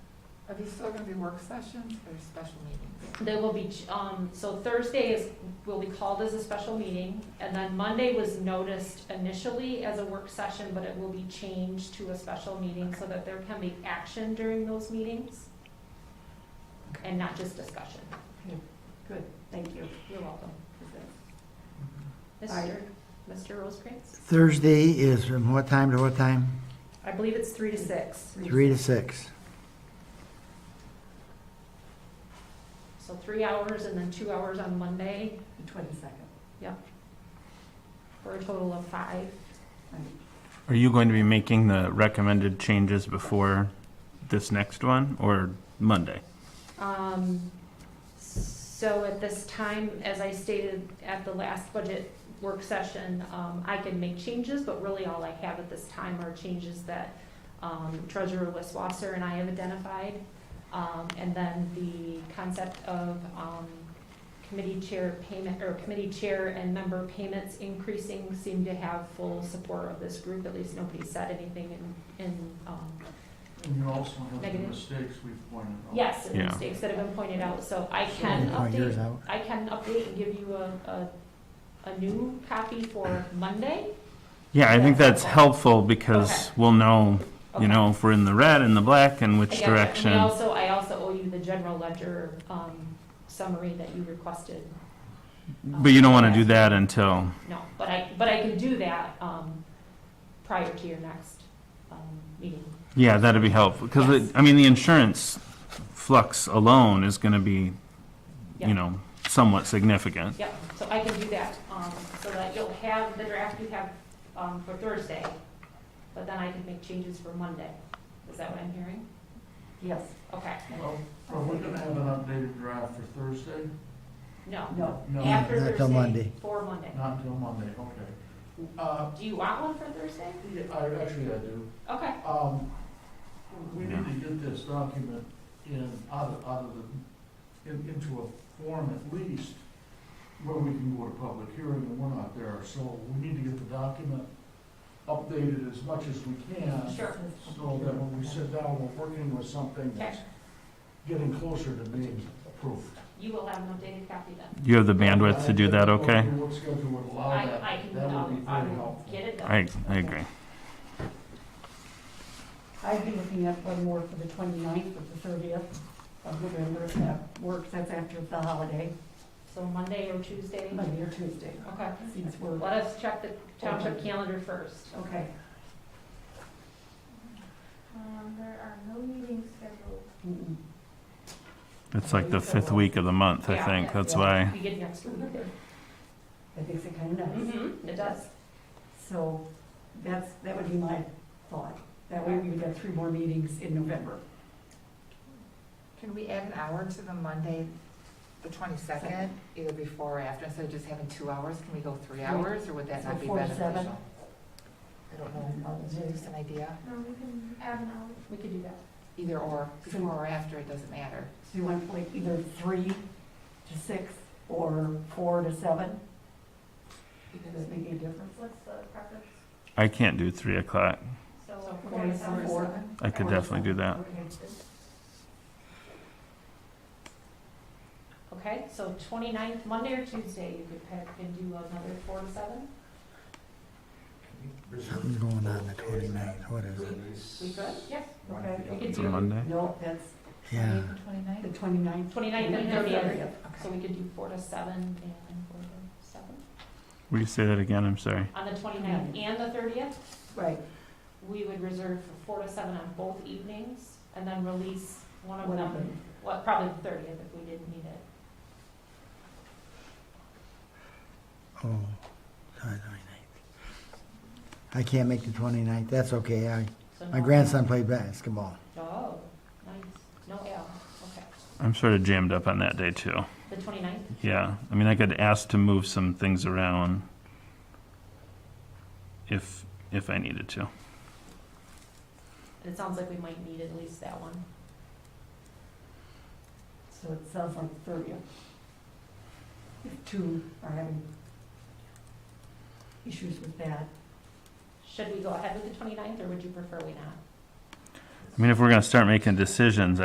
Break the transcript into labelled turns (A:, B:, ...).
A: Are these still gonna be work sessions or special meetings?
B: There will be, um, so Thursday is, will be called as a special meeting, and then Monday was noticed initially as a work session, but it will be changed to a special meeting so that there can be action during those meetings and not just discussion.
C: Thank you.
B: You're welcome.
C: Aye.
B: Mr. Mr. Rosecrans?
D: Thursday is from what time to what time?
B: I believe it's three to six.
D: Three to six.
B: So three hours and then two hours on Monday
C: The twenty-second.
B: for a total of five.
E: Are you going to be making the recommended changes before this next one or Monday?
B: Um, so at this time, as I stated at the last budget work session, um, I can make changes, but really all I have at this time are changes that, um, Treasurer Wes Wasser and I have identified. Um, and then the concept of, um, committee chair payment, or committee chair and member payments increasing seem to have full support of this group, at least nobody said anything in, in, um,
F: And you also have the
B: Negative.
F: mistakes we've pointed out.
B: yes, and
E: Yeah.
B: mistakes that have been pointed out, so I can
D: Can you
B: update
D: point yours out?
B: I can update and give you a, a, a new copy for Monday.
E: Yeah, I think
B: That's
E: that's helpful because we'll know,
B: Okay.
E: you know, if we're in the red and the black and
B: I
E: which
B: got you. And we
E: direction.
B: also, I also owe you the general ledger, um, summary that you requested. um,
E: But you don't want to do
B: last-
E: that until,
B: No, but I, but I can do that, um, prior to your next, um, meeting.
E: yeah, that'd be helpful. Because,
B: Yes.
E: I mean, the insurance flux alone is going to be,
B: Yeah.
E: you know, somewhat significant.
B: Yep, so I can do that, um, so that you'll have the draft you have, um, for Thursday, but then I can make changes for Monday. Is that what I'm hearing?
C: Yes,
B: Okay,
F: Well, Are we gonna have an updated draft for Thursday?
B: no,
C: no.
F: No,
B: after
D: Not till
B: Thursday,
D: Monday.
B: for Monday.
F: not until Monday, okay. Uh,
B: Do you want one for Thursday?
F: yeah, I, actually I do.
B: Okay,
F: Um, we need to get this document in, out of, out of the, in, into a form at least where we can go to public hearing and we're not there, so we need to get the document updated as much as we can.
B: sure.
F: So that when we sit down, we're working with something that's getting closer to being approved.
B: You will have an updated copy then.
E: You have the bandwidth to do that, okay?
F: What schedule would allow
B: I,
F: that.
B: I can,
F: That would
B: um,
F: be
B: I
F: very
B: will
F: helpful.
B: get it done.
E: I, I agree.
C: I'd be looking at one more for the 29th or the thirtieth of November, if that works, that's after the holiday,
B: So Monday or Tuesday?
C: Monday or Tuesday,
B: Okay.
C: since we're,
B: Let us check the township calendar first.
C: okay.
G: Um, there are no meetings scheduled.
C: Mm-mm.
E: It's like the fifth week of the month, I
B: Yeah.
E: think. That's why.
B: We get next week.
C: That makes it kind of nice.
B: Mm-hmm, it does.
C: So that's, that would be my thought. That way we would have three more meetings in November.
A: Can we add an hour to the Monday, the twenty-second, either before or after, instead of just having two hours, can we go three hours, or would that not be
C: Before seven?
A: beneficial? I don't know,
C: Um,
A: is there just an idea?
G: No, Um, we can add an hour.
B: We could do that.
A: Either or, before or after, it doesn't matter.
C: So you want like either three to six or four to seven? Does that make any difference?
G: What's the preference?
E: I can't do three o'clock.
G: So
A: So
C: we're
G: four
C: gonna
G: to
C: say
G: seven.
C: four.
E: I could definitely do that.
C: Okay.
B: Okay, so 29th, Monday or Tuesday, you could pick and do another four to seven?
D: Something's going on the 29th. What is it?
B: We could? Yes.
C: Okay.
B: We could
E: It's
B: do,
E: Monday.
C: No, that's
D: Yeah.
C: the
A: 29th?
C: 29th.
B: 29th and 30th. so
A: Okay.
B: we could do four to seven and four to seven.
E: Will you say that again? I'm sorry.
B: On the 29th and the 30th?
C: Right,
B: we would reserve for four to seven on both evenings, and then release one of
C: one of
B: them,
C: them.
B: well, probably the thirtieth if we didn't need it.
D: Oh, sorry, 29th. I can't make the 29th. That's okay. I,
B: So
D: my
B: no-
D: grandson played basketball.
B: Oh, nice, no L, okay.
E: I'm sort of jammed up on that day too.
B: The 29th.
E: Yeah. I mean, I could ask to move some things around if, if I needed to.
B: and it sounds like we might need at least that one.
C: So it sounds like the 30th. If two are having issues with that.
B: Should we go ahead with the 29th, or would you prefer we not?
E: I mean, if we're going to start making decisions,